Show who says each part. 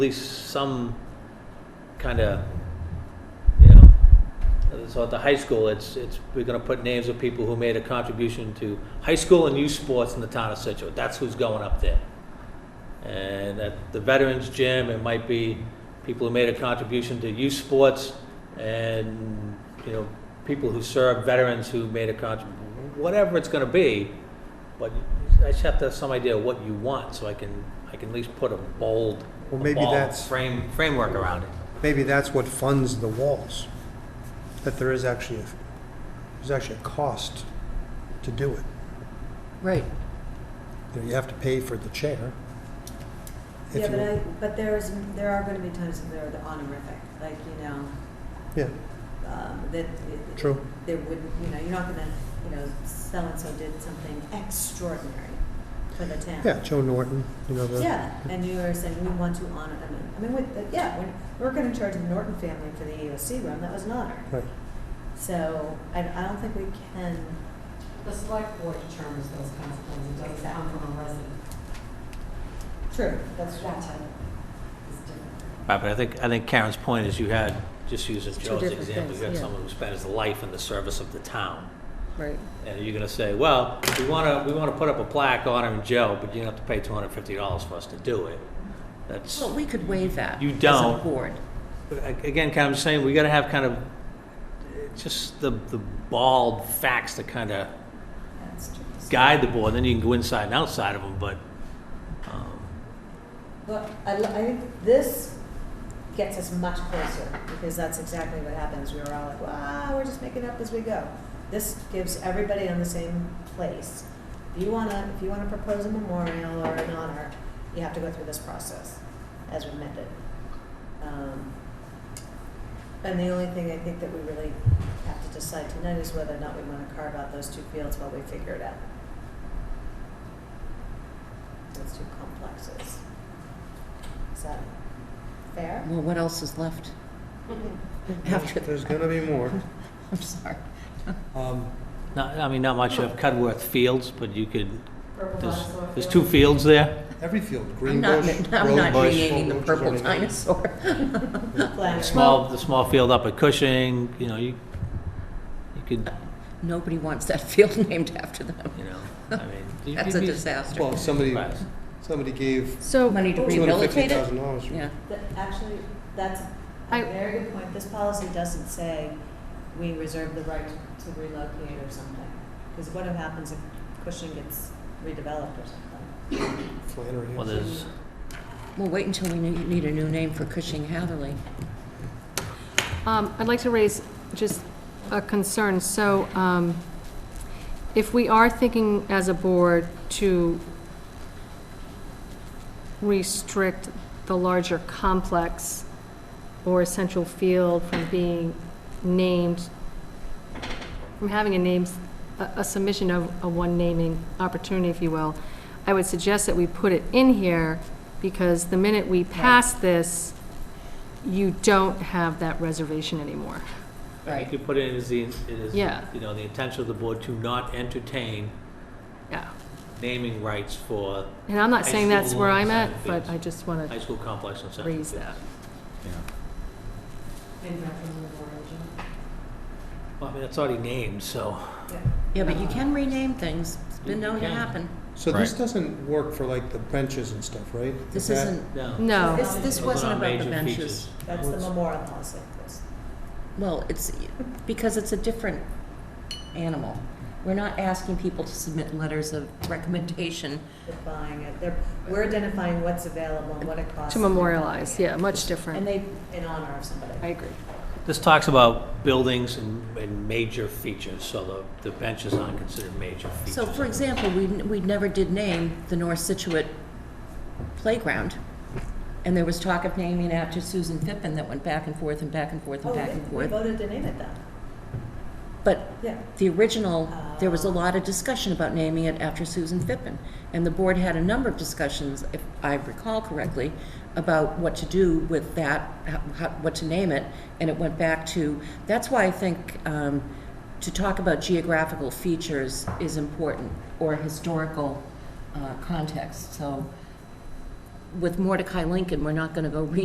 Speaker 1: least some kind of, you know, so at the high school, it's, it's, we're gonna put names of people who made a contribution to high school and youth sports in the town of Situate. That's who's going up there. And at the veterans gym, it might be people who made a contribution to youth sports and, you know, people who serve veterans who made a contribution, whatever it's gonna be. But I just have to have some idea of what you want, so I can, I can at least put a bold,
Speaker 2: Well, maybe
Speaker 1: ball
Speaker 2: that's-
Speaker 1: frame, framework around it.
Speaker 2: Maybe that's what funds the walls, that there is actually, a there's actually a cost to do it.
Speaker 3: Right.
Speaker 2: You know, you have to pay for the chair. if
Speaker 4: Yeah, but
Speaker 2: you-
Speaker 4: I, but there's, there are gonna be times when they're the honorific, like, you know,
Speaker 2: Yeah,
Speaker 4: um, that. it-
Speaker 2: True.
Speaker 4: There wouldn't, you know, you're not gonna, you know, so-and-so did something extraordinary for the town.
Speaker 2: yeah, Joe Norton, you know, the.
Speaker 4: Yeah, and you are saying we want to honor, I mean, I mean, with, the- yeah, we're, we're gonna charge the Norton family for the AOC room, that was an honor.
Speaker 2: Right.
Speaker 4: So, I, I don't think we can,
Speaker 3: The select board determines those kinds of things, it doesn't come from a resident.
Speaker 4: true, that's
Speaker 3: That's
Speaker 4: true.
Speaker 3: that type is different.
Speaker 1: Right, but I think, I think Karen's point is you had, just using
Speaker 3: two
Speaker 1: Joe's
Speaker 3: different
Speaker 1: example,
Speaker 3: things,
Speaker 1: you had
Speaker 3: yeah.
Speaker 1: someone who spent his life in the service of the town.
Speaker 3: Right.
Speaker 1: And you're gonna say, well, we wanna, we wanna put up a plaque honoring Joe, but you're gonna have to pay two hundred and fifty dollars for us to do it. That's,
Speaker 3: Well, we could waive that.
Speaker 1: You
Speaker 3: As
Speaker 1: don't.
Speaker 3: a board.
Speaker 1: a- again, kind of saying, we gotta have kind of, eh, just the, the bald facts to kind of
Speaker 4: That's true.
Speaker 1: guide the board, then you can go inside and outside of them, but, um,
Speaker 4: Well, I, lo- I think this gets us much closer, because that's exactly what happens, we were all like, wow, we're just making up as we go. This gives everybody on the same place. If you wanna, if you wanna propose a memorial or an honor, you have to go through this process, as we meant it. Um, And the only thing I think that we really have to decide tonight is whether or not we wanna carve out those two fields while we figure it out. Those two complexes. Is that fair?
Speaker 3: Well, what else is left after
Speaker 2: There's
Speaker 3: that?
Speaker 2: gonna be more.
Speaker 3: I'm sorry.
Speaker 2: Um,
Speaker 1: not, I mean, not much of Cudworth Fields, but you could,
Speaker 4: Purple
Speaker 1: there's,
Speaker 4: dinosaur
Speaker 1: there's two
Speaker 4: field.
Speaker 1: fields there.
Speaker 2: Every field,
Speaker 3: I'm
Speaker 2: green
Speaker 3: not,
Speaker 2: bush,
Speaker 3: I'm
Speaker 2: road
Speaker 3: not
Speaker 2: bush,
Speaker 3: renaming the
Speaker 2: bush is
Speaker 3: purple
Speaker 2: already-
Speaker 3: dinosaur.
Speaker 4: Flag.
Speaker 1: Small, the small field up at Cushing, you know, you, you could,
Speaker 3: Nobody wants that field named after them.
Speaker 1: you know, I mean. you-
Speaker 3: That's a
Speaker 1: you-
Speaker 3: disaster.
Speaker 2: Well, somebody,
Speaker 1: Right.
Speaker 2: somebody gave
Speaker 3: So. Money to
Speaker 2: two hundred fifty
Speaker 3: rehabilitate it?
Speaker 2: thousand dollars.
Speaker 3: Yeah.
Speaker 4: Th- Actually, that's a
Speaker 5: I-
Speaker 4: very good point. This policy doesn't say we reserve the right to relocate or something. Because what happens if Cushing gets redeveloped or something?
Speaker 2: Flannery.
Speaker 1: Well, there's,
Speaker 3: We'll wait until we ne- need a new name for Cushing Hatherley.
Speaker 5: Um, I'd like to raise just a concern. So um, if we are thinking as a board to restrict the larger complex or essential field from being named, from having a names, a a submission of a one naming opportunity, if you will, I would suggest that we put it in here because the minute we pass this, you don't have that reservation anymore.
Speaker 1: you
Speaker 3: Right.
Speaker 1: could put it as the, it is,
Speaker 5: Yeah.
Speaker 1: you know, the intention of the board to not entertain
Speaker 5: Yeah.
Speaker 1: naming rights for
Speaker 5: And I'm not saying that's where I'm
Speaker 1: High
Speaker 5: at,
Speaker 1: school
Speaker 5: but I just want
Speaker 1: high
Speaker 5: to
Speaker 1: school complex and center.
Speaker 5: raise that.
Speaker 1: Well, I mean, that's already named, so.
Speaker 3: Yeah, but you can rename things. It's been known to
Speaker 1: You can.
Speaker 3: happen.
Speaker 2: So this doesn't work for like the benches and stuff, right?
Speaker 3: This
Speaker 2: Is that-
Speaker 3: isn't,
Speaker 1: No.
Speaker 5: No.
Speaker 3: this, this
Speaker 1: Those
Speaker 3: wasn't
Speaker 1: are
Speaker 3: about the
Speaker 1: major
Speaker 3: benches.
Speaker 1: features.
Speaker 4: That's the memorial policy. Chris.
Speaker 3: Well, it's, because it's a different animal. We're not asking people to submit letters of recommendation.
Speaker 4: They're buying it. They're, we're identifying what's available and what it costs.
Speaker 5: To memorialize, yeah, much
Speaker 4: And
Speaker 5: different.
Speaker 4: they, in honor of somebody.
Speaker 5: I agree.
Speaker 1: This talks about buildings and, and major features, so the, the benches aren't considered major features.
Speaker 3: So for example, we, we never did name the North Situate Playground. And there was talk of naming it after Susan Pippin that went back and forth and back and forth
Speaker 4: Oh,
Speaker 3: and back and
Speaker 4: we
Speaker 3: forth.
Speaker 4: voted to name it then.
Speaker 3: But
Speaker 4: Yeah.
Speaker 3: the original, there was a lot of discussion about naming it after Susan Pippin. And the board had a number of discussions, if I recall correctly, about what to do with that, how, what to name it. And it went back to, that's why I think, um, to talk about geographical features is important or historical, uh, context. So with Mordecai Lincoln, we're not gonna go re-